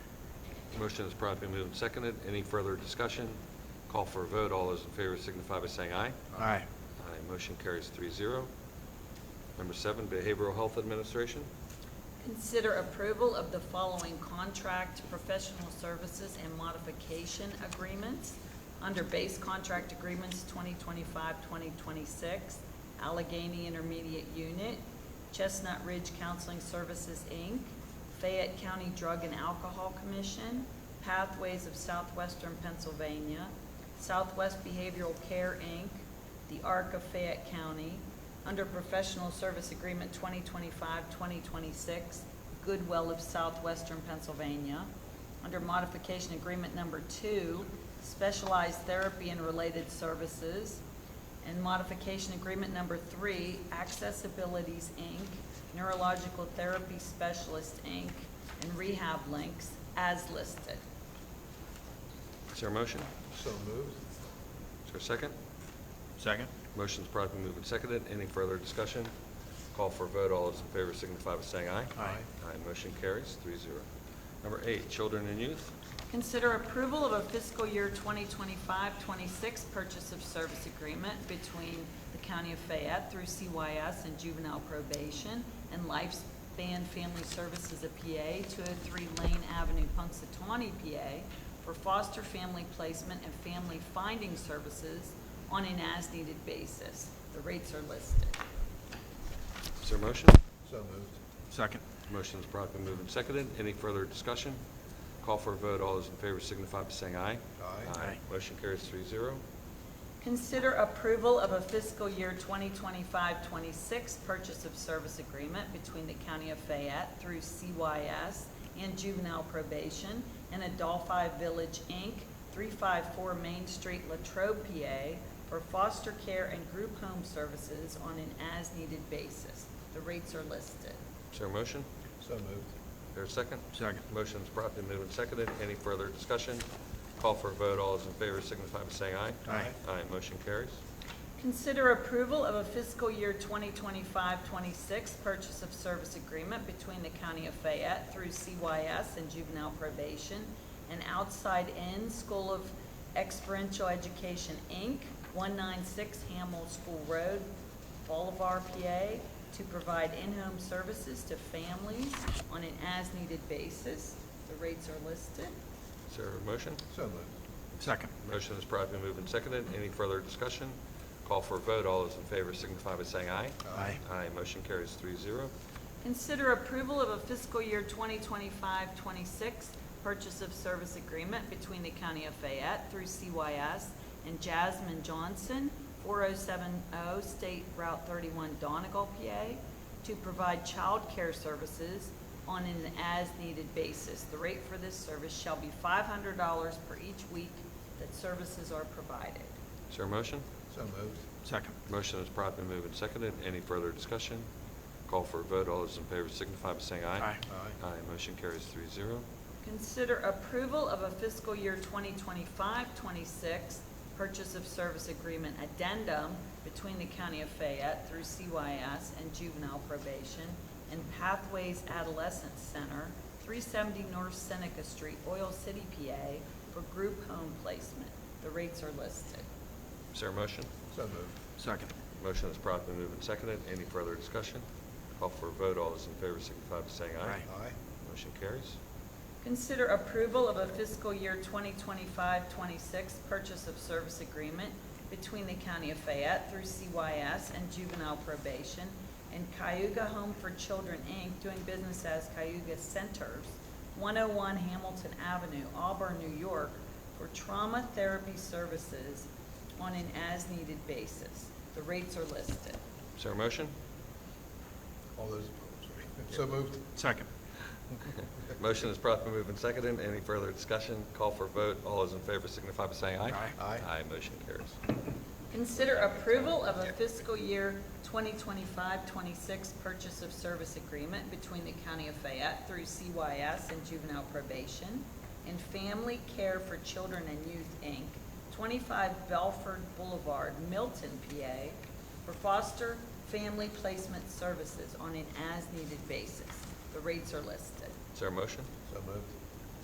Motion is promptly moved and seconded. Any further discussion? Call for a vote. All those in favor signify by saying aye. Aye. Aye. Motion carries three zero. Number seven, Behavioral Health Administration. Consider approval of the following contract, professional services, and modification agreements. Under base contract agreements 2025-2026, Allegheny Intermediate Unit, Chestnut Ridge Counseling Services, Inc., Fayette County Drug and Alcohol Commission, Pathways of Southwestern Pennsylvania, Southwest Behavioral Care, Inc., the Arc of Fayette County, under Professional Service Agreement 2025-2026, Goodwill of Southwestern Pennsylvania, under Modification Agreement Number Two, Specialized Therapy and Related Services, and Modification Agreement Number Three, Accessibilities, Inc., Neurological Therapy Specialist, Inc., and Rehab Links, as listed. Is there a motion? So moved. Is there a second? Second? Motion is promptly moved and seconded. Any further discussion? Call for a vote. All those in favor signify by saying aye. Aye. Aye. Motion carries three zero. Number eight, Children and Youth. Consider approval of a fiscal year 2025-26 purchase of service agreement between the County of Fayette through CYS and Juvenile Probation and Lifespan Family Services of PA, 203 Lane Avenue, Punxsutawney, PA, for foster family placement and family finding services on an as-needed basis. The rates are listed. Is there a motion? So moved. Second? Motion is promptly moved and seconded. Any further discussion? Call for a vote. All those in favor signify by saying aye. Aye. Aye. Motion carries three zero. Consider approval of a fiscal year 2025-26 purchase of service agreement between the County of Fayette through CYS and Juvenile Probation and Adolphi Village, Inc., 354 Main Street, Latrobe, PA, for foster care and group home services on an as-needed basis. The rates are listed. Is there a motion? So moved. Is there a second? Second. Motion is promptly moved and seconded. Any further discussion? Call for a vote. All those in favor signify by saying aye. Aye. Aye. Motion carries. Consider approval of a fiscal year 2025-26 purchase of service agreement between the County of Fayette through CYS and Juvenile Probation and Outside In School of Experiential Education, Inc., 196 Hamel School Road, Bolivar, PA, to provide in-home services to families on an as-needed basis. The rates are listed. Is there a motion? So moved. Second? Motion is promptly moved and seconded. Any further discussion? Call for a vote. All those in favor signify by saying aye. Aye. Aye. Motion carries three zero. Consider approval of a fiscal year 2025-26 purchase of service agreement between the County of Fayette through CYS and Jasmine Johnson, 4070 State Route 31 Donegal, PA, to provide child care services on an as-needed basis. The rate for this service shall be $500 per each week that services are provided. Is there a motion? So moved. Second? Motion is promptly moved and seconded. Any further discussion? Call for a vote. All those in favor signify by saying aye. Aye. Aye. Aye. Motion carries three zero. Consider approval of a fiscal year 2025-26 purchase of service agreement addendum between the County of Fayette through CYS and Juvenile Probation and Pathways Adolescent Center, 370 North Seneca Street, Oil City, PA, for group home placement. The rates are listed. Is there a motion? So moved. Second? Motion is promptly moved and seconded. Any further discussion? Call for a vote. All those in favor signify by saying aye. Aye. Motion carries. Consider approval of a fiscal year 2025-26 purchase of service agreement between the County of Fayette through CYS and Juvenile Probation and Cayuga Home for Children, Inc., doing business as Cayuga Centers, 101 Hamilton Avenue, Auburn, New York, for trauma therapy services on an as-needed basis. The rates are listed. Is there a motion? All those, so moved. Second? Motion is promptly moved and seconded. Any further discussion? Call for a vote. All those in favor signify by saying aye. Aye. Aye. Aye. Motion carries. Consider approval of a fiscal year 2025-26 purchase of service agreement between the County of Fayette through CYS and Juvenile Probation and Family Care for Children and Youth, Inc., 25 Belford Boulevard, Milton, PA, for foster family placement services on an as-needed basis. The rates are listed. Is there a motion? So moved.